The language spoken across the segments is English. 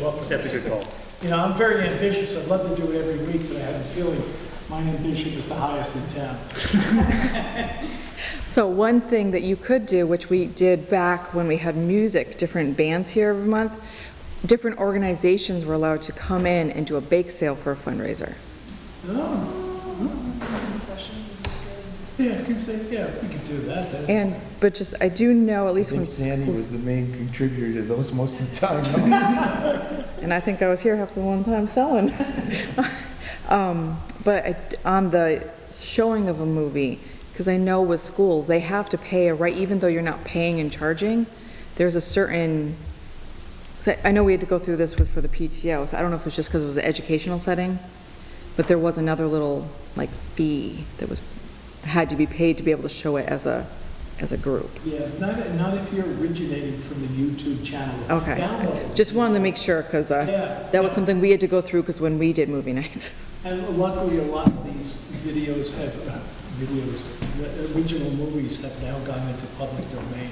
Well, That's a good call. You know, I'm very ambitious. I'd love to do it every week, but I have a feeling my ambition is the highest in town. So one thing that you could do, which we did back when we had music, different bands here every month, different organizations were allowed to come in and do a bake sale for a fundraiser. Oh, yeah, I can say, yeah, we could do that. That- And, but just, I do know, at I least when, think Sandy school- was the main contributor to those most of the time. and I think I was here half the one time selling. Um, But I- on the showing of a movie, because I know with schools, they have to pay a right, even though you're not paying and charging, there's a certain, so I know we had to go through this with, for the PTO, so I don't know if it's just because it was an educational setting, but there was another little, like, fee that was, had to be paid to be able to show it as a, as a group. Yeah, not, not if you're originating from the YouTube channel. If you Okay, download it, just wanted to make sure, uh, because Yeah. that was something we had to go through, because when we did movie nights. And luckily, a lot of these videos have, uh, videos, the original movies have now gone into public domain.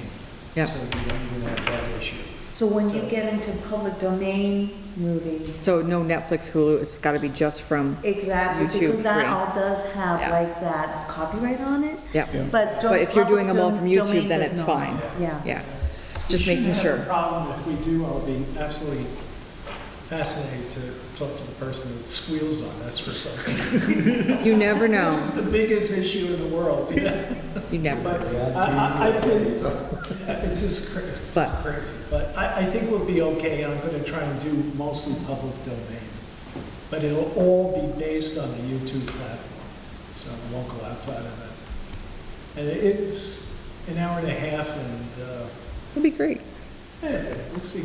Yeah. So you don't even have that issue. So when you So- get into public domain movies, So no Netflix, Hulu, it's got to be just from, exactly, YouTube because free. that all does have Yeah. like that copyright on it, yeah, but. But if you're public doing them all from dom- YouTube, domain then does it's not. fine. Yeah, yeah. Just We shouldn't making have a sure. problem. If we do, I'll be absolutely fascinated to talk to the person that squeals on us for something. You never know, This is the biggest issue in the world, you know? you never. But I, I, I've been, it's just crazy, it's But- just crazy. But I, I think we'll be okay, and I'm gonna try and do mostly public domain. But it'll all be based on the YouTube platform, so I won't go outside of it. And it's an hour and a half, and, uh, It'd be great. eh, we'll see.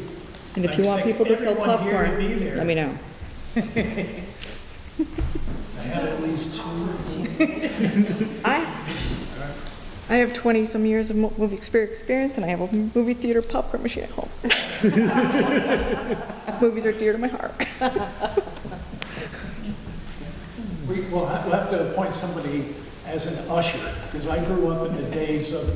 And I if you want expect people to sell everyone here to popcorn, be there. let me know. I had at least two. I, I have 20-some years of mo- movie exper- experience, and I have a movie theater popcorn machine at home. Movies are dear to my heart. We, we'll have we'll have to appoint somebody as an usher, because I grew up in the days of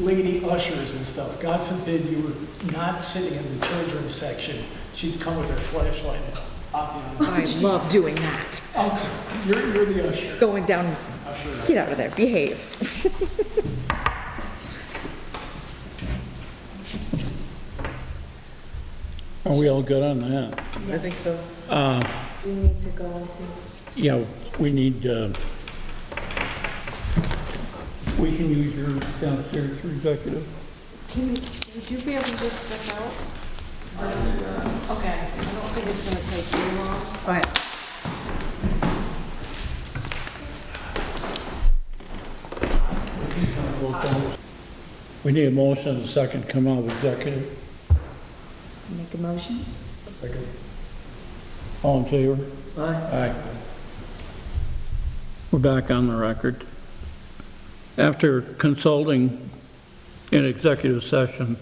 lady ushers and stuff. God forbid you were not sitting in the children's section. She'd come with her flashlight and pop you on. I love doing that, Oh, You're, you're the usher. going down, Usher. get out of there, behave. Are we all good on that? Uh, I think so. we need to go into. Yeah, we need, uh, we can use your downstairs for executive. Can, would you be able to just step out? Okay, I don't think it's gonna take too long. All right, We need a motion and a second to come out of executive. make a motion? All in favor? Aye. We're back on the record. After consulting in executive session,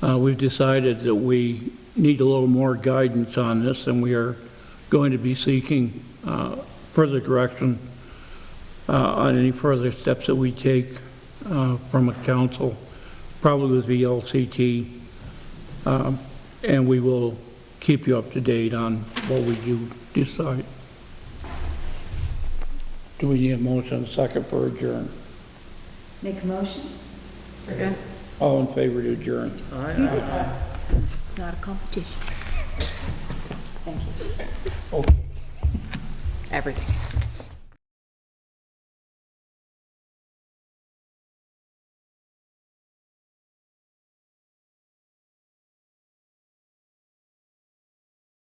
uh, we've decided that we need a little more guidance on this, and we are going to be seeking uh, further direction uh, on any further steps that we take uh, from a council, probably with VLCT, um, and we will keep you up to date on what we do decide. Do we need a motion second for adjourn? Make a motion? All in favor to adjourn? It's not a competition. Thank you. Okay. Everything is.